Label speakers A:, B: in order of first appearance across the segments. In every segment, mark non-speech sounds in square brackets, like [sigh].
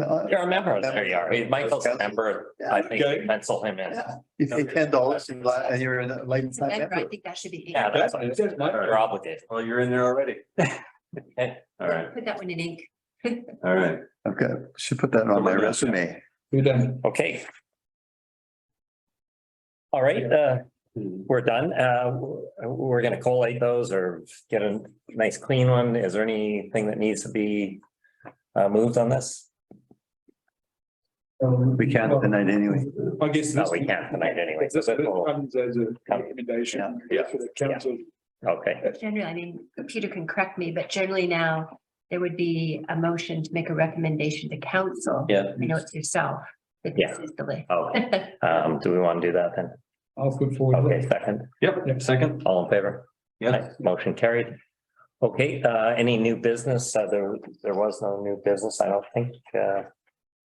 A: Uh,
B: You're a member, there you are. Michael's a member. I
C: Okay.
B: think pencil him in.
A: yeah, You pay ten dollars and li- and you're a lifetime
D: Denver, I
A: member.
D: think that should be.
B: Yeah, that's, you're obligated.
C: Well, you're in there already.
B: Okay.
C: All right,
D: Put that one in ink.
C: all right.
A: Okay, should put that on my resume.
E: You're done.
B: Okay. All right, uh, we're done. Uh, w- we're gonna collate those or get a nice clean one. Is there anything that needs to be uh, moved on this?
A: We can't tonight anyway.
E: Um, I guess.
B: No,
E: this-
B: we can't tonight anyway.
E: This this comes as a recommendation
B: Yeah.
E: for the council.
B: Okay,
D: Generally, I mean, Peter can correct me, but generally now there would be a motion to make a recommendation to council.
B: yeah.
D: I know it's yourself, but this is the way.
B: Oh, um, do we want to do that then?
E: I'll put forward.
B: Okay, second,
C: Yep, second.
B: all in favor?
C: Yeah.
B: Aye. Motion carried. Okay, uh, any new business? Uh, there, there was no new business, I don't think, uh,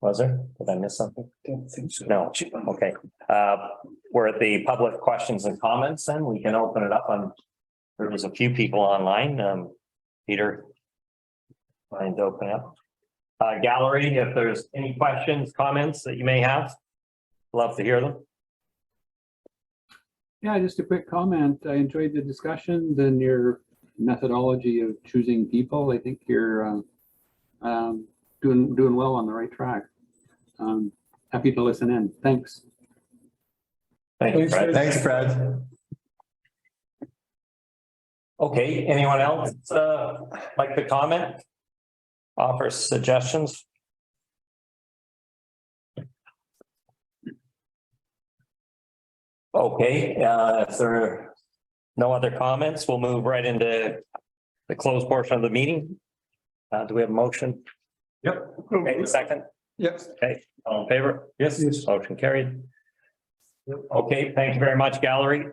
B: was there? Did I miss something?
E: Don't think so.
B: No, okay. Uh, we're at the public questions and comments and we can open it up on, there was a few people online, um, Peter. Mind to open up. Uh, gallery, if there's any questions, comments that you may have, love to hear them.
F: Yeah, just a quick comment. I enjoyed the discussions and your methodology of choosing people. I think you're um, um, doing, doing well on the right track. Um, Happy to listen in. Thanks.
B: Thank you, Fred.
C: Thanks, Brad.
B: Okay, anyone else uh like to comment? Offer suggestions? Okay, uh if there are no other comments, we'll move right into the closed portion of the meeting. Uh do we have a motion?
C: Yep.
B: Okay, second,
E: Yes.
B: okay, all in favor?
C: Yes.
B: Motion carried. Okay, thank you very much, gallery.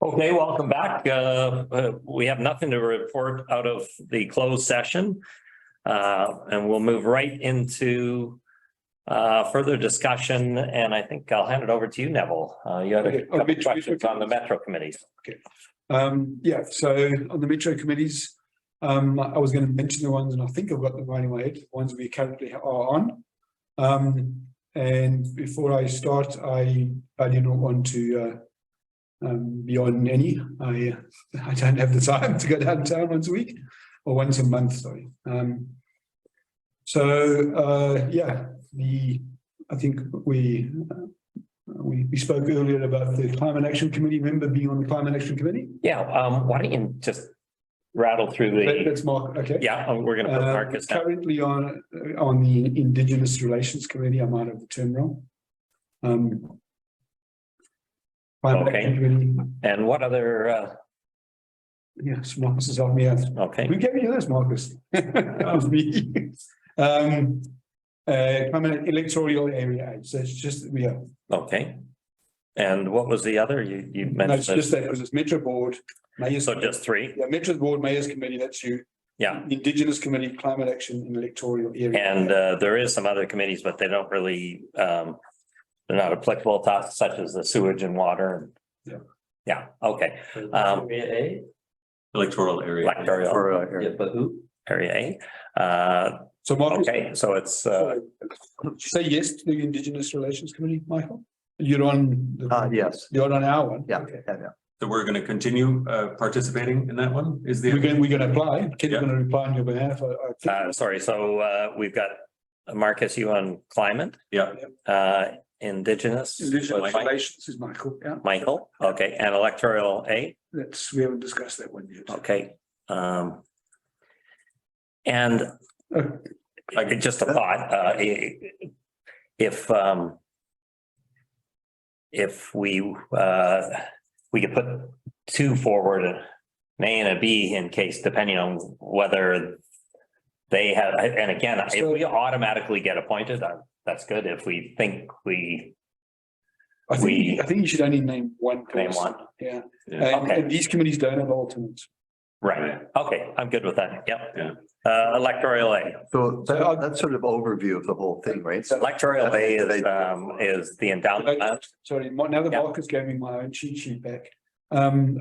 B: Okay, welcome back. Uh, uh, we have nothing to report out of the closed session. Uh, and we'll move right into uh, further discussion, and I think I'll hand it over to you, Neville. Uh, you had a
E: Okay. Oh,
B: couple
E: Mitch, Mitch,
B: questions on the
E: okay.
B: metro committees.
E: Um, yeah, so on the metro committees, um, I was gonna mention the ones, and I think I've got them right in my head, the ones we currently are on. Um, and before I start, I, I do not want to, uh, um, be on any, I, [laughs] I don't have the time to go downtown once a week, or once a month, sorry. Um, so, uh, yeah, the, I think we, uh, we, we spoke earlier about the Climate Action Committee member being on the Climate Action Committee.
B: Yeah, um, why don't you just rattle through
E: That-
B: the,
E: That's Mark, okay.
B: yeah, oh, we're gonna put
E: Um,
B: Marcus down.
E: Currently on, uh, on the Indigenous Relations Committee, I might have the term wrong. Um. Climate
B: Okay.
E: Action Committee,
B: And what other, uh,
E: yes, Marcus is on me, I've
B: okay,
E: Who gave you this,
B: [laughs]
E: Marcus? That was me. Um, uh, climate electoral area, aid. so it's just, yeah,
B: okay. And what was the other? You, you
E: no, it's
B: mentioned,
E: just that, because it's Metro Board,
B: it.
E: Mayor's.
B: so just three,
E: Yeah, Metro Board, Mayor's Committee, that's you.
B: Yeah.
E: Indigenous Committee, Climate Action, and Electoral Area.
B: and, uh, there is some other committees, but they don't really, um, they're not applicable to us, such as the sewage and water.
E: Yeah.
B: Yeah, okay, um,
C: Electoral area.
B: Electoral.
A: uh,
C: Yeah, but who?
B: area A, uh,
E: So Marcus.
B: okay, so it's, uh,
E: Say yes to the Indigenous Relations Committee, Michael? You're on. the-
A: Uh, yes,
E: You're on our one?
A: yeah,
E: Okay.
A: yeah, yeah.
C: So we're gonna continue uh participating in that one, is the.
E: We're going, we're going to apply. Ken's
C: Yeah.
E: going to reply on your behalf. I- I think.
B: uh, sorry, so, uh, we've got Marcus, you on climate,
C: Yeah.
B: uh, indigenous.
E: Indigenous Relations is Michael, yeah.
B: Michael, okay, and electoral A,
E: That's, we haven't discussed that one yet.
B: okay. Um. And
E: Uh,
B: like just a thought, uh, i- if, um. If we, uh, we could put two forward, an A and a B in case, depending on whether. They have, and again, if we automatically get appointed, uh, that's good. If we think we
E: I
B: We-
E: think, I think you should only name one
B: may
E: person.
B: want,
E: Yeah.
C: Yeah.
E: And,
B: Okay.
E: and these committees don't have alternates.
B: right, okay, I'm good with that, yep.
C: Yeah.
B: Uh, electoral A.
A: So
E: So uh, I'll-
A: that, that's sort of overview of the whole thing, right? So
B: Electoral A is, um, is the endowment.
E: Sorry, my- now that
B: Yeah.
E: Marcus gave me my own cheat sheet back, Um,